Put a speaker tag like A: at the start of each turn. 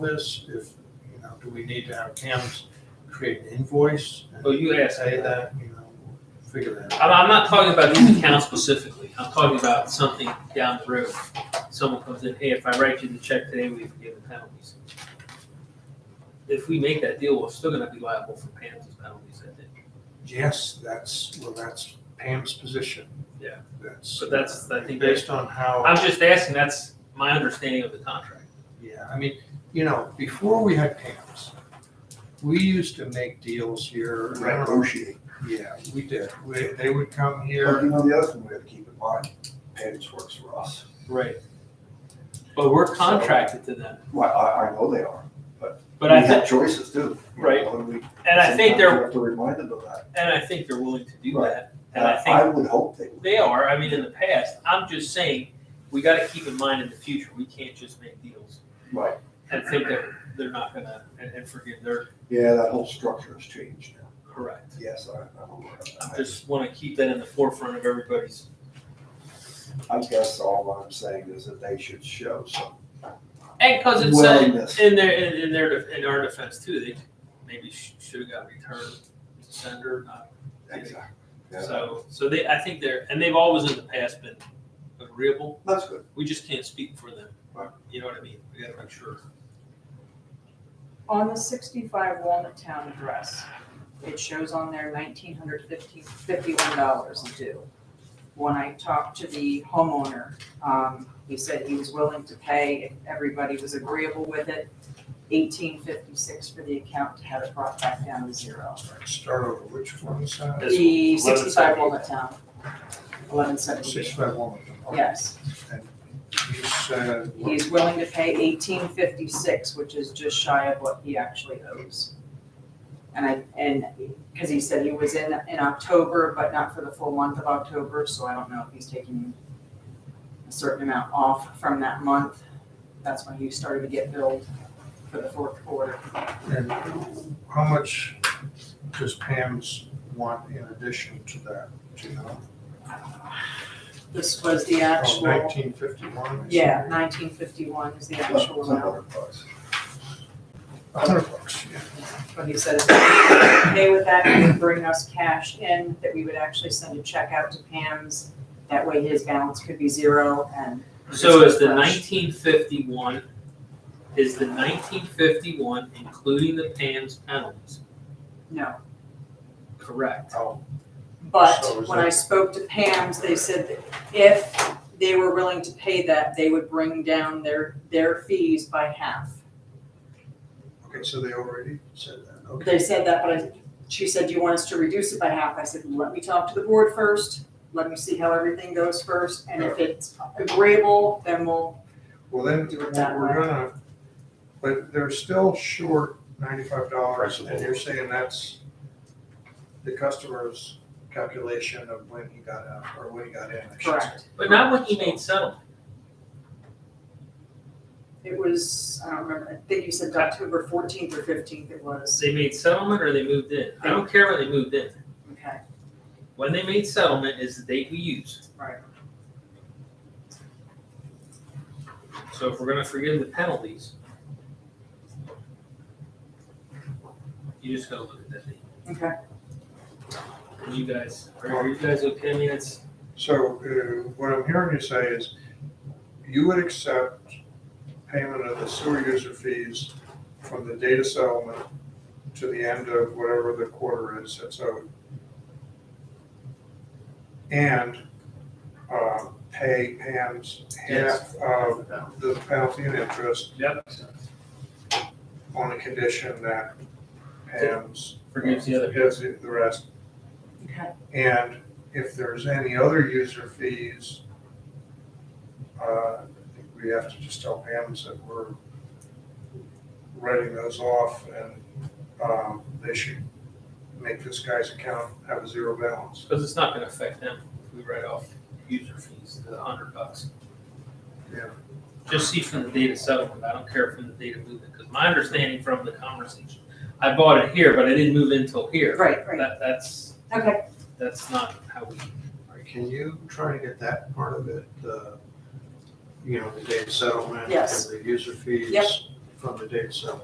A: this, if, you know, do we need to have Cam's create an invoice? and
B: Well, you asked
A: Say
B: me that.
A: that, you know, figure that out.
B: I'm, I'm not talking about these accounts specifically. I'm talking about something down the road. Someone comes in, hey, if I write you the check today, we forgive the penalties. If we make that deal, we're still gonna be liable for penalties, penalties, I think.
A: Yes, that's, well, that's Pam's position.
B: Yeah.
A: That's.
B: So that's, I think, that's-
A: Based on
C: Oh.
A: how.
B: I'm just asking, that's my understanding of the contract.
A: Yeah, I mean, you know, before we had camps, we used to make deals here. I don't know-
C: negotiate.
A: Yeah, we did. We, they would come
C: But
A: here.
C: you know, the other thing we have to keep in mind, Page works for us.
B: Right. But we're contracted to them,
C: Well, I, I know they are.
B: but I
C: We
B: think,
C: have choices too. You know,
B: Right.
C: and we-
B: and I think
C: sometimes
B: they're,
C: we Have to remind them of that.
B: and I think they're willing to do
C: Right.
B: that. And I think
C: I would hope they would.
B: They are. I mean, in the past, I'm just saying, we gotta keep in mind in the future, we can't just make deals
C: Right.
B: and think that they're not gonna, and, and forgive, they're
C: Yeah, that whole structure has changed now.
B: correct.
C: Yes, I, I'm aware of
B: I
C: that.
B: just wanna keep that in the forefront of everybody's,
C: I guess all I'm saying is that they should show some
B: and cause it's, uh,
C: willingness.
B: in their, in, in their, def- in our defense too, they maybe sh- should've got returned to sender, not,
C: Exactly. Yeah,
B: so, so they, I think they're, and they've always in the past been agreeable,
C: That's good.
B: we just can't speak for them.
C: Right.
B: You know what I mean? We gotta make sure.
D: On the sixty-five Walnut Town address, it shows on there nineteen hundred fifty, fifty-one dollars due. When I talked to the homeowner, um, he said he was willing to pay if everybody was agreeable with it. Eighteen fifty-six for the account to have it brought back down to zero.
A: Start over, which one's that?
B: This one, 1170.
D: The sixty-five Walnut Town, eleven
A: Six
D: seventy,
A: five one. okay.
D: yes.
A: And You said, what-
D: He's willing to pay eighteen fifty-six, which is just shy of what he actually owes. And I, and, cause he said he was in, in October, but not for the full month of October, so I don't know if he's taking a certain amount off from that month. That's when he started to get billed for the fourth quarter.
A: and how much does Pam's want in addition to that, do you know? Oh,
D: This was the actual,
A: Nineteen fifty-one?
D: yeah, nineteen fifty-one is the actual
C: It's a
D: amount,
C: hundred bucks.
A: A hundred bucks, yeah.
D: but he said if we pay with that, it would bring us cash in, that we would actually send a check out to Pam's. That way his balance could be zero and
B: So is the
D: Fresh.
B: nineteen fifty-one, is the nineteen fifty-one including the PAM's penalties?
D: No,
B: Correct.
D: but
A: So is
D: when I
A: that-
D: spoke to Pam's, they said that if they were willing to pay that, they would bring down their, their fees by half.
A: Okay, so they already said that, okay.
D: They said that, but I, she said, do you want us to reduce it by half? I said, let me talk to the board first, let me see how everything goes first, and if it's agreeable, then we'll,
A: Well, then,
D: Do
A: we're
D: it that way.
A: gonna, but they're still short ninety-five dollars,
C: Principal.
A: and you're saying that's the customer's calculation of when he got out, or when he got in. I should say.
D: correct.
B: But not when he made settlement.
D: It was, I don't remember, I think you said October fourteenth or fifteenth it was,
B: They made settlement or they moved in. I don't care when they moved in.
D: okay,
B: When they made settlement is the date we use.
D: right.
B: So if we're gonna forgive the penalties, you just gotta look at that date.
D: Okay.
B: And you guys, are are you guys okay? I mean, it's,
A: So, uh, what I'm hearing you say is, you would accept payment of the sewer user fees from the data settlement to the end of whatever the quarter is that's owed. And, uh, pay Pam's half
B: Yes.
A: of the penalty and interest
B: yep,
A: on the condition that Pam's.
B: forgives the other.
A: Gives the the rest.
D: Okay.
A: And if there's any other user fees, uh, I think we have to just tell Pam's that we're writing those off and, um, they should make this guy's account have a zero balance.
B: Because it's not gonna affect them if we write off user fees, the hundred bucks.
A: Yeah.
B: Just see from the data settlement, I don't care from the data movement, because my understanding from the conversation, I bought it here, but I didn't move in till here.
D: Right, right,
B: That, that's,
D: okay.
B: that's not how we,
A: Can you try to get that part of it, you uh, know, the data settlement
D: Yes.
A: the user fees?
D: Yep.
A: from the date of sale.